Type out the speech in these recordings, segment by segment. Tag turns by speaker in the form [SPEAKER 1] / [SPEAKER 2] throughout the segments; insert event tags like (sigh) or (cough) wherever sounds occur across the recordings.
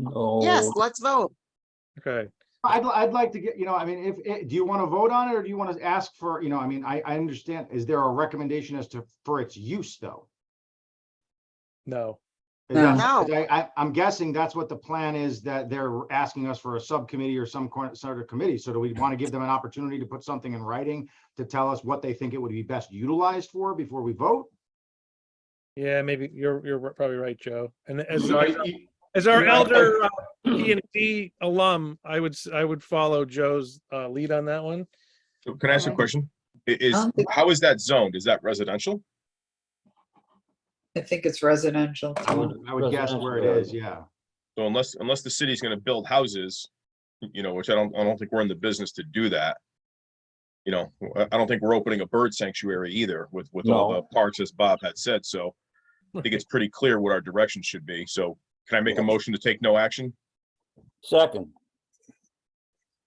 [SPEAKER 1] No.
[SPEAKER 2] Yes, let's vote.
[SPEAKER 3] Okay,
[SPEAKER 4] I'd, I'd like to get, you know, I mean, if, eh, do you want to vote on it or do you want to ask for, you know, I mean, I, I understand, is there a recommendation as to, for its use though?
[SPEAKER 3] no,
[SPEAKER 4] Is that-
[SPEAKER 2] No.
[SPEAKER 4] is I, I, I'm guessing that's what the plan is, that they're asking us for a subcommittee or some kind- sort of committee. So do we want to give them an opportunity to put something in writing to tell us what they think it would be best utilized for before we vote?
[SPEAKER 3] yeah, maybe you're, you're probably right, Joe. And as,
[SPEAKER 5] So
[SPEAKER 3] our-
[SPEAKER 5] I- you-
[SPEAKER 3] as our
[SPEAKER 5] you know, I-
[SPEAKER 3] elder uh, P and D alum, I would, s- I would follow Joe's uh, lead on that one.
[SPEAKER 5] so Can I ask a question? I- Is,
[SPEAKER 6] Um,
[SPEAKER 5] how is that zoned? Is that residential?
[SPEAKER 6] I think it's residential.
[SPEAKER 1] I would-
[SPEAKER 4] I would guess where it is, yeah.
[SPEAKER 5] So unless, unless the city's gonna build houses, you know, which I don't, I don't think we're in the business to do that. You know, I- I don't think we're opening a bird sanctuary either with, with all the
[SPEAKER 1] No.
[SPEAKER 5] parks, as Bob had said, so I think it's pretty clear what our direction should be, so can I make a motion to take no action?
[SPEAKER 1] Second,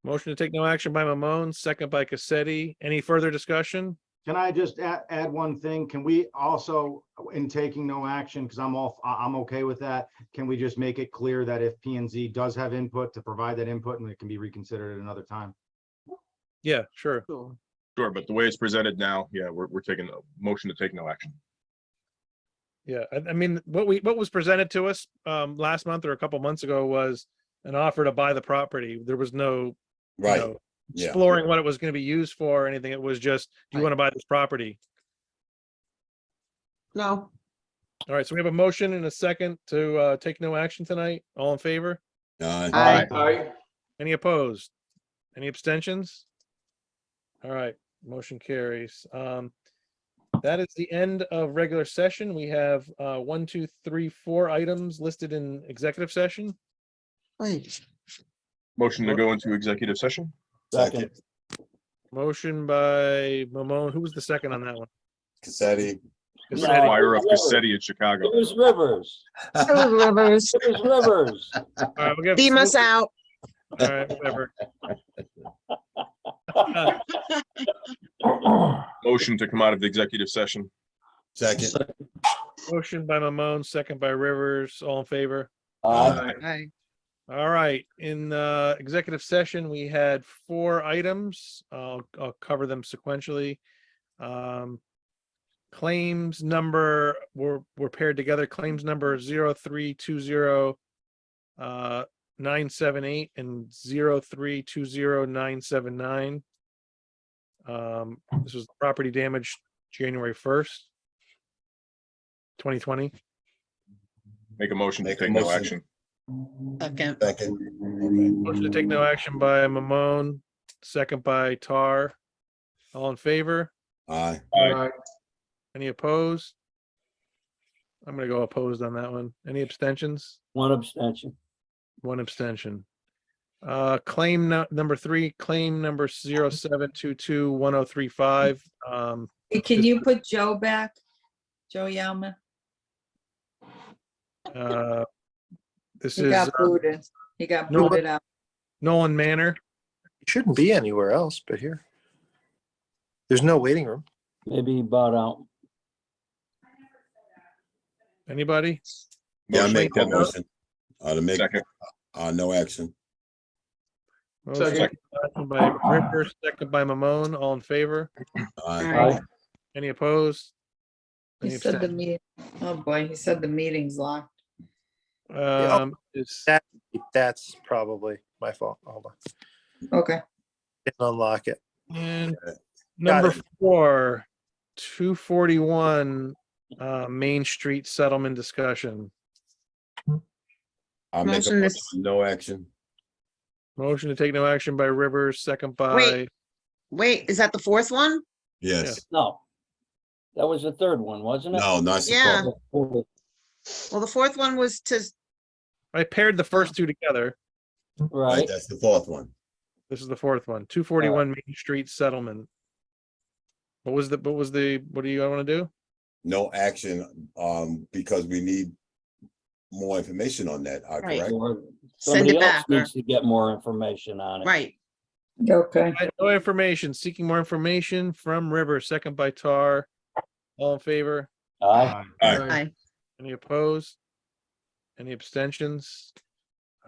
[SPEAKER 3] Motion to take no action by Mamone, second by Cassetti. Any further discussion?
[SPEAKER 4] Can I just add, add one thing? Can we also, in taking no action, because I'm off, I, am okay with that. Can we just make it clear that if P and Z does have input, to provide that input and it can be reconsidered at another time?
[SPEAKER 3] Yeah, sure.
[SPEAKER 2] Cool.
[SPEAKER 5] Sure, but the way it's presented now, yeah, we're, we're taking a motion to take no action.
[SPEAKER 3] Yeah, I, I mean, what we, what was presented to us um, last month or a couple months ago was an offer to buy the property. There was no, you
[SPEAKER 7] Right,
[SPEAKER 3] know,
[SPEAKER 7] yeah.
[SPEAKER 3] exploring what it was going to be used for or anything. It was just, do you
[SPEAKER 2] Right.
[SPEAKER 3] want to buy this property?
[SPEAKER 2] No,
[SPEAKER 3] All right, so we have a motion and a second to uh, take no action tonight. All in favor?
[SPEAKER 7] Uh,
[SPEAKER 2] I,
[SPEAKER 5] Aye.
[SPEAKER 3] Any opposed? Any abstentions? All right, motion carries. Um, that is the end of regular session. We have, uh, one, two, three, four items listed in executive session.
[SPEAKER 2] wait,
[SPEAKER 5] Motion to go into executive session?
[SPEAKER 1] second,
[SPEAKER 3] Motion by Mamone. Who was the second on that one?
[SPEAKER 7] Cassetti.
[SPEAKER 1] No.
[SPEAKER 3] Cassetti.
[SPEAKER 5] Fire of Cassetti in Chicago.
[SPEAKER 1] Cruz Rivers,
[SPEAKER 2] Cruz Rivers,
[SPEAKER 1] Cruz Rivers. (clears throat)
[SPEAKER 3] All right, uh, we'll give-
[SPEAKER 2] beam us
[SPEAKER 3] we'll-
[SPEAKER 2] out.
[SPEAKER 3] All right, whatever. (laughs) Uh,
[SPEAKER 5] Motion to come out of the executive session.
[SPEAKER 7] Second.
[SPEAKER 3] Motion by Mamone, second by Rivers, all in favor?
[SPEAKER 1] Aye.
[SPEAKER 2] Aye.
[SPEAKER 3] All right, in the executive session, we had four items. I'll, I'll cover them sequentially. Um, Claims number, were were paired together, claims number zero three two zero uh, nine seven eight and zero three two zero nine seven nine. Um, This was property damage January first, twenty twenty.
[SPEAKER 5] Make a motion to
[SPEAKER 7] Make a
[SPEAKER 5] take no
[SPEAKER 7] motion.
[SPEAKER 5] action.
[SPEAKER 2] Second,
[SPEAKER 7] Second.
[SPEAKER 3] Motion to take no action by Mamone, second by Tar. All in favor?
[SPEAKER 7] Aye.
[SPEAKER 5] Aye.
[SPEAKER 3] Any opposed? I'm gonna go opposed on that one. Any abstentions?
[SPEAKER 1] One abstention.
[SPEAKER 3] One abstention. Uh, claim nu- number three, claim number zero seven two two one oh three five. Um,
[SPEAKER 6] Can you put Joe back? Joe Yama?
[SPEAKER 3] uh, this
[SPEAKER 6] He
[SPEAKER 3] is
[SPEAKER 6] got
[SPEAKER 3] uh,
[SPEAKER 6] booted. He got
[SPEAKER 3] No,
[SPEAKER 6] booted out.
[SPEAKER 3] Nolan Manor.
[SPEAKER 8] Shouldn't be anywhere else but here. There's no waiting room.
[SPEAKER 1] Maybe he bought out.
[SPEAKER 3] Anybody?
[SPEAKER 7] Yeah, I
[SPEAKER 5] Motion
[SPEAKER 7] make
[SPEAKER 5] to
[SPEAKER 7] that
[SPEAKER 5] take no-
[SPEAKER 7] motion. Uh, to make,
[SPEAKER 5] Second,
[SPEAKER 7] uh, no action.
[SPEAKER 3] Motion By Rivers, second by Mamone, all in favor?
[SPEAKER 7] Aye.
[SPEAKER 2] Aye.
[SPEAKER 3] Any opposed?
[SPEAKER 6] He
[SPEAKER 3] Any
[SPEAKER 6] said the
[SPEAKER 3] abstentions?
[SPEAKER 6] meeting, oh boy, he said the meeting's locked.
[SPEAKER 3] Um, is-
[SPEAKER 8] That's probably my fault. Hold on.
[SPEAKER 6] Okay.
[SPEAKER 8] Didn't unlock it.
[SPEAKER 3] And
[SPEAKER 7] Got
[SPEAKER 3] number
[SPEAKER 8] it.
[SPEAKER 3] four, two forty-one, uh, Main Street Settlement Discussion.
[SPEAKER 7] I'll make a
[SPEAKER 2] Motion is-
[SPEAKER 7] motion, no action.
[SPEAKER 3] Motion to take no action by Rivers, second by,
[SPEAKER 2] Wait. wait, is that the fourth one?
[SPEAKER 7] Yes.
[SPEAKER 1] No. That was the third one, wasn't it?
[SPEAKER 7] No, not
[SPEAKER 2] Yeah.
[SPEAKER 7] supposed.
[SPEAKER 2] Well, the fourth one was to,
[SPEAKER 3] I paired the first two together.
[SPEAKER 7] Right,
[SPEAKER 1] Right,
[SPEAKER 7] that's the fourth one.
[SPEAKER 3] This is the fourth one, two forty-one Main Street Settlement. What was the, what was the, what do you want to do?
[SPEAKER 7] No action, um, because we need more information on that, uh,
[SPEAKER 2] Right.
[SPEAKER 7] correct?
[SPEAKER 1] Or
[SPEAKER 2] send
[SPEAKER 1] Somebody
[SPEAKER 2] it
[SPEAKER 1] else
[SPEAKER 2] back, or-
[SPEAKER 1] needs to get more information on it.
[SPEAKER 2] right,
[SPEAKER 6] Okay.
[SPEAKER 3] I- No information, seeking more information from Rivers, second by Tar. All in favor?
[SPEAKER 1] Aye.
[SPEAKER 4] Uh,
[SPEAKER 5] Aye.
[SPEAKER 2] aye.
[SPEAKER 3] Any opposed? Any abstentions?